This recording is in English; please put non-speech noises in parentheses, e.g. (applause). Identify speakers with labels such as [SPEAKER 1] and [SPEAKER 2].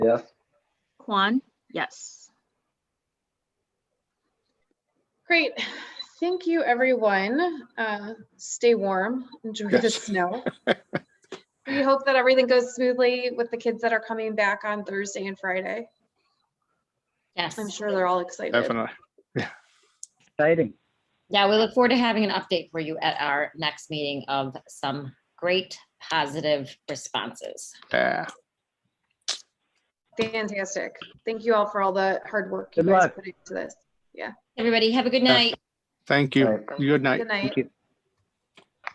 [SPEAKER 1] Yes.
[SPEAKER 2] Kwan, yes.
[SPEAKER 3] Great. Thank you, everyone. Uh, Stay warm, enjoy the
[SPEAKER 4] Yes. (laughs)
[SPEAKER 3] snow. We hope that everything goes smoothly with the kids that are coming back on Thursday and Friday.
[SPEAKER 5] Yes.
[SPEAKER 3] I'm sure they're all excited.
[SPEAKER 4] Definitely.
[SPEAKER 1] Exciting.
[SPEAKER 5] Yeah, we look forward to having an update for you at our next meeting of some great positive responses.
[SPEAKER 4] Yeah.
[SPEAKER 3] Fantastic. Thank you all for all the hard work you
[SPEAKER 1] Good
[SPEAKER 3] guys
[SPEAKER 1] luck.
[SPEAKER 3] put into this.
[SPEAKER 5] Everybody, have a good night.
[SPEAKER 4] Thank you.
[SPEAKER 1] Right.
[SPEAKER 4] Good night.
[SPEAKER 3] Good night.
[SPEAKER 1] Thank you.